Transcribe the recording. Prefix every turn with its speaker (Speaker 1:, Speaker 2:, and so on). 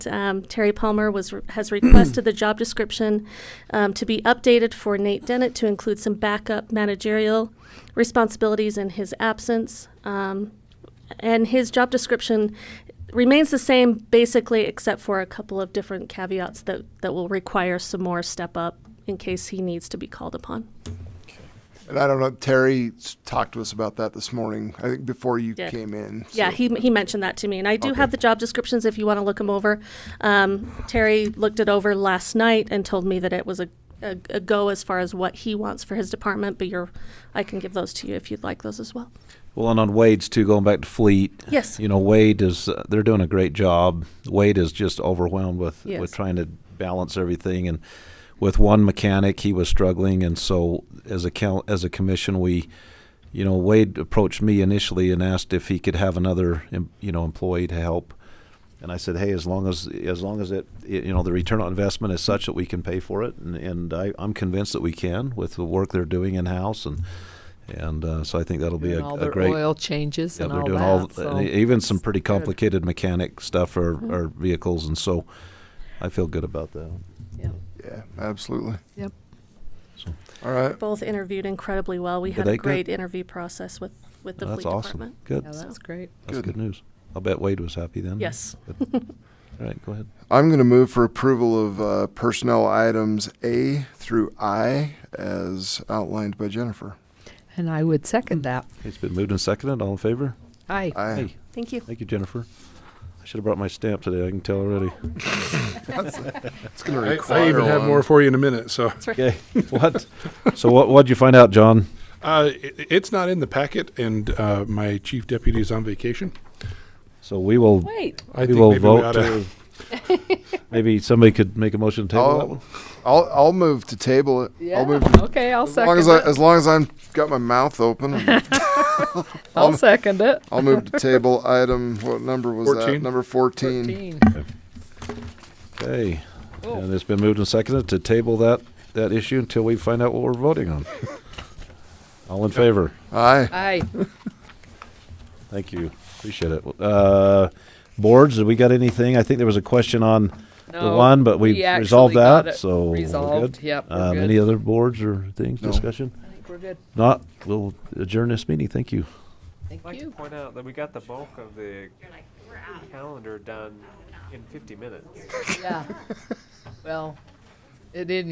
Speaker 1: Um, Terry Palmer was has requested the job description um, to be updated for Nate Dennett to include some backup managerial responsibilities in his absence. Um, and his job description remains the same basically, except for a couple of different caveats that, that will require some more step up in case he needs to be called upon.
Speaker 2: And I don't know, Terry s- talked to us about that this morning, I think before you
Speaker 1: Did.
Speaker 2: came in.
Speaker 1: Yeah,
Speaker 2: so-
Speaker 1: he, he mentioned that to me, and I do
Speaker 2: Okay.
Speaker 1: have the job descriptions if you want to look them over. Um, Terry looked it over last night and told me that it was a, a, a go as far as what he wants for his department. But you're, I can give those to you if you'd like those as well.
Speaker 3: Well, and on Wade's too, going back to Fleet.
Speaker 1: Yes.
Speaker 3: You know, Wade is uh, they're doing a great job. Wade is just overwhelmed with
Speaker 1: Yes.
Speaker 3: with trying to balance everything, and with one mechanic, he was struggling, and so as a coun as a commission, we. You know, Wade approached me initially and asked if he could have another, em- you know, employee to help, and I said, "Hey, as long as as long as it, it you know, the return on investment is such that we can pay for it, and, and I, I'm convinced that we can with the work they're doing in house, and and uh, so I think that'll be
Speaker 4: doing
Speaker 3: a,
Speaker 4: all
Speaker 3: a
Speaker 4: their
Speaker 3: great
Speaker 4: oil changes
Speaker 3: yeah,
Speaker 4: and
Speaker 3: they're
Speaker 4: all
Speaker 3: doing
Speaker 4: that.
Speaker 3: all
Speaker 4: so
Speaker 3: and even some pretty
Speaker 4: it's good.
Speaker 3: complicated mechanic stuff or, or vehicles, and so I feel good about that.
Speaker 4: Yep.
Speaker 2: Yeah, absolutely.
Speaker 4: Yep.
Speaker 2: All right.
Speaker 1: Both interviewed incredibly well. We
Speaker 3: Did
Speaker 1: had
Speaker 3: they
Speaker 1: a
Speaker 3: get-
Speaker 1: great interview process with, with the
Speaker 3: That's
Speaker 1: fleet
Speaker 3: awesome.
Speaker 1: department.
Speaker 3: Good.
Speaker 4: Yeah, that's great.
Speaker 3: That's
Speaker 2: Good.
Speaker 3: good. news. I'll bet Wade was happy then.
Speaker 1: Yes.
Speaker 3: Good. all right, go ahead.
Speaker 2: I'm going to move for approval of uh, personnel items A through I as outlined by Jennifer.
Speaker 4: And I would second that.
Speaker 3: It's been moved and seconded. All in favor?
Speaker 4: Aye.
Speaker 2: I,
Speaker 3: Hey,
Speaker 1: Thank you.
Speaker 3: thank you, Jennifer. I should have brought my stamp today. I can tell already.
Speaker 2: it's going to
Speaker 5: I,
Speaker 2: require
Speaker 5: I even have
Speaker 2: one.
Speaker 5: more for you in a minute. So
Speaker 1: That's right.
Speaker 3: Okay. what? So what? What'd you find out, John?
Speaker 5: uh, it, it's not in the packet, and uh, my chief deputy is on vacation.
Speaker 3: So we will.
Speaker 4: Wait.
Speaker 5: I
Speaker 3: we
Speaker 5: think
Speaker 3: will
Speaker 5: maybe we
Speaker 3: vote.
Speaker 5: oughta-
Speaker 3: to- maybe somebody could make a motion to table that one.
Speaker 2: I'll, I'll, I'll move to table it.
Speaker 4: Yeah.
Speaker 2: I'll move to,
Speaker 4: okay, I'll
Speaker 2: as long
Speaker 4: second
Speaker 2: as I,
Speaker 4: it.
Speaker 2: as long as I'm got my mouth open,
Speaker 4: I'll
Speaker 2: I'm-
Speaker 4: second it.
Speaker 2: I'll move to table item. What number was that?
Speaker 5: 14.
Speaker 2: Number 14.
Speaker 4: 13.
Speaker 3: Okay.
Speaker 4: Oh.
Speaker 3: And it's been moved and seconded to table that, that issue until we find out what we're voting on. All in favor?
Speaker 2: Aye.
Speaker 4: Aye.
Speaker 3: Thank you. Appreciate it. Uh, boards, have we got anything? I think there was a question on the
Speaker 4: No,
Speaker 3: one, but
Speaker 4: we
Speaker 3: we
Speaker 4: actually
Speaker 3: resolved
Speaker 4: got
Speaker 3: that,
Speaker 4: it
Speaker 3: so. we're
Speaker 4: resolved.
Speaker 3: good.
Speaker 4: Yep, we're
Speaker 3: Um,
Speaker 4: good.
Speaker 3: Any other boards or things,
Speaker 2: No.
Speaker 3: discussion?
Speaker 4: I think we're good.
Speaker 3: Not, we'll adjourn this meeting. Thank you.
Speaker 4: Thank
Speaker 6: I'd like to
Speaker 4: you.
Speaker 6: point out that we got the bulk of the calendar done in 50 minutes.
Speaker 4: Yeah. well, it didn't.